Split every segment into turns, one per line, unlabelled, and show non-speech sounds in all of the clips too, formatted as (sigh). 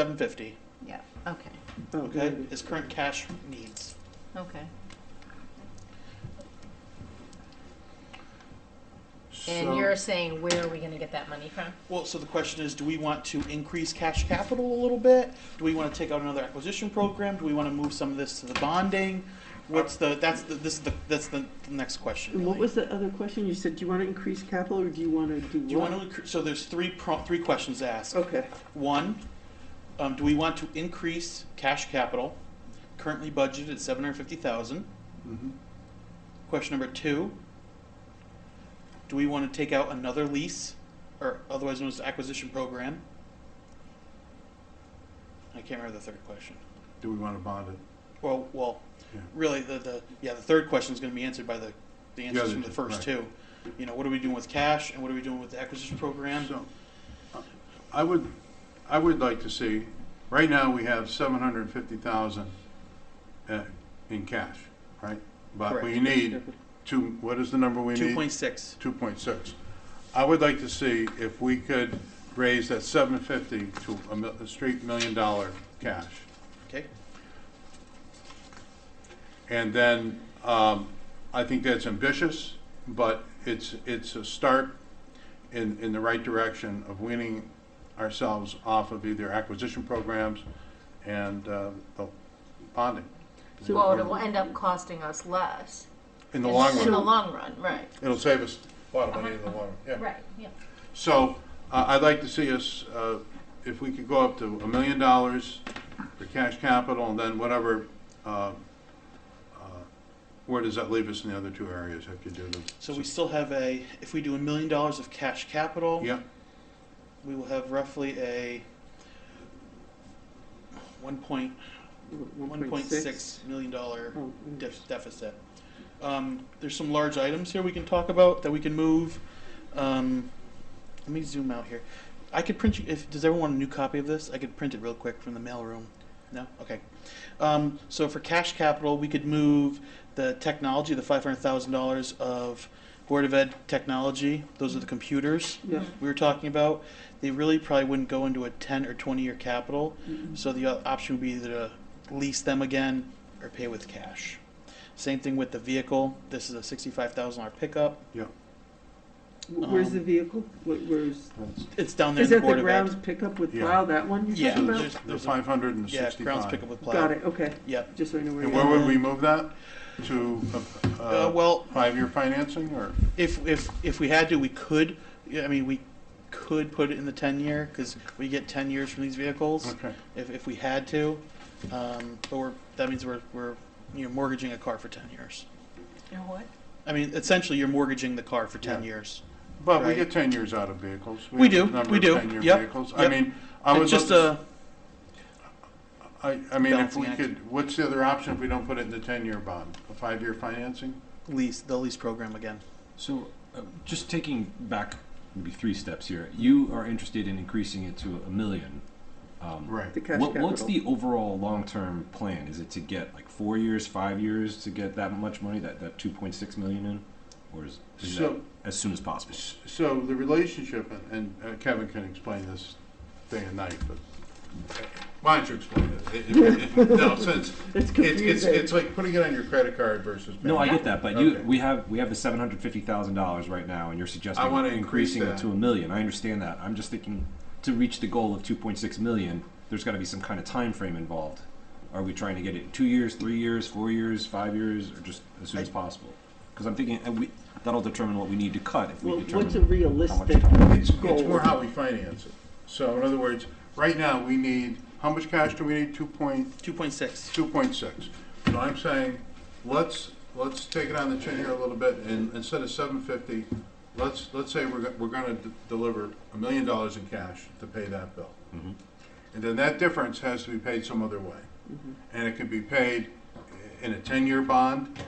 seven fifty,
Yeah, okay,
Oh,
okay,
good.
is current cash needs.
okay.
So-
And you're saying where are we gonna get that money from?
Well, so the question is, do we want to increase cash capital a little bit? Do we want to take out another acquisition program? Do we want to move some of this to the bonding? What's the, that's the, this is the, that's the the next question.
And what
really.
was the other question? You said, do you want to increase capital or do you want to do what?
Do you want to, incre- so there's three, pro- three questions asked.
Okay,
One, um, do we want to increase cash capital, currently budgeted at seven hundred fifty thousand? Mm-hmm. Question number two, do we want to take out another lease, or otherwise known as acquisition program? I can't remember the third question.
Do we want to bond it?
Well, well,
Yeah.
really, the, the, yeah, the third question is gonna be answered by the, the answers
other
from the
two,
first
right.
two. You know, what are we doing with cash, and what are we doing with the acquisition program?
So, uh, I would, I would like to see, right now, we have seven hundred and fifty thousand uh, in cash, right? But we
Correct.
need two, what is the number we need?
Two point six.
Two point six. I would like to see if we could raise that seven fifty to a mil- a straight million dollar cash.
Okay,
And then, um, I think that's ambitious, but it's, it's a start in, in the right direction of weaning ourselves off of either acquisition programs and, uh, the bonding.
So-
Well, it'll end up costing us less.
In the long
In the Uh-huh.
run,
long run, right.
it'll save us a lot of money in the long run, yeah.
Right, yeah.
So, uh, I'd like to see us, uh, if we could go up to a million dollars for cash capital, and then whatever, uh, uh, where does that leave us in the other two areas if you do the?
so we still have a, if we do a million dollars of cash capital.
Yeah,
we will have roughly a one point, one point six million dollar
Oh, mm.
def- deficit. Um, there's some large items here we can talk about that we can move. Um, let me zoom out here. I could print you, if, does everyone want a new copy of this? I could print it real quick from the mailroom. No? Okay. Um, so for cash capital, we could move the technology, the five hundred thousand dollars of Board of Ed technology. Those are the computers
Yeah.
we were talking about, they really probably wouldn't go into a 10 or 20 year capital.
Mhm.
So the o- option would be either to lease them again or pay with cash. Same thing with the vehicle. This is a $65,000 pickup.
yeah.
Wh- Where's
um,
the vehicle? Wh- Where's?
That's
It's down there
Is
in the
that
Board
the
of
grounds
Ed.
pickup with
Yeah.
plow, that one you're
Yeah,
talking
there's-
about?
The
a-
five hundred and the
Yeah, grounds pickup
sixty-five.
with plow.
Got it, okay,
Yep.
just so I know where
And
you
where
are.
would we move that? To, uh,
Uh,
uh,
well,
five-year financing or?
if, if, if we had to, we could, yeah, I mean, we could put it in the 10 year because we get 10 years from these vehicles.
Okay,
if, if we had to. Um, but we're, that means we're, we're, you know, mortgaging a car for 10 years.
And what?
I mean, essentially, you're mortgaging the car for 10
Yeah.
years.
but we
Right.
get ten years out of vehicles.
We
have a
do,
number
we
of
do.
10-year
Yep,
vehicles. I
yep.
mean, I would
It's
love
just uh,
to,
a,
I, I mean, if
balancing
we
act.
could, what's the other option if we don't put it in the ten-year bond? A five-year financing?
lease, the lease program again.
So, uh, just taking back maybe three steps here, you are interested in increasing it to a million. Um,
Right.
The cash
what,
capital.
what's the overall long-term plan? Is it to get like four years, five years to get that much money, that, that 2.6 million in? Or is, is
So-
that as soon as possible?
S- So the relationship, and- and uh, Kevin can explain this day and night, but why don't you explain it? it? it- it-
(laughs)
No, since,
It's
it's, it's,
confusing.
it's like putting it on your credit card versus.
No, I
bank.
get that, but you,
Okay.
we have, we have the seven hundred fifty thousand dollars right now, and you're suggesting
I wanna increase
increasing it
that.
to a million. I understand that. I'm just thinking, to reach the goal of two point six million, there's gotta be some kind of time frame involved. Are we trying to get it in two years, three years, four years, five years, or just as soon as possible? Because I'm thinking, uh, we, that'll determine what we need to cut if
Well,
we
what's a
determine.
realistic
time?
It's, it's
goal?
more how we finance it. So in other words, right now, we need, how much cash do we need? Two point,
2.6.
two point six. So I'm saying, let's, let's take it on the chin here a little bit, and instead of seven fifty, let's, let's say we're, go- we're gonna d- deliver a million dollars in cash to pay that bill. And then that difference has to be paid some other way. And it could be paid in a ten-year bond.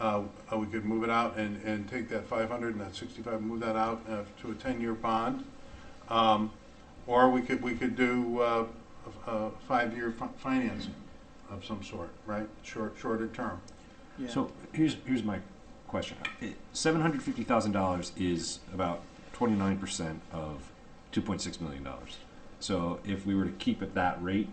Uh, uh, we could move it out and, and take that five hundred and that sixty-five, move that out uh, to a ten-year bond. Um, Or we could, we could do uh, a a five-year fi- financing of some sort, right? Short, shorter term.
Yeah.
So here's, here's my question. Seven hundred fifty thousand dollars is about twenty-nine percent of two point six million dollars. So if we were to keep at that rate,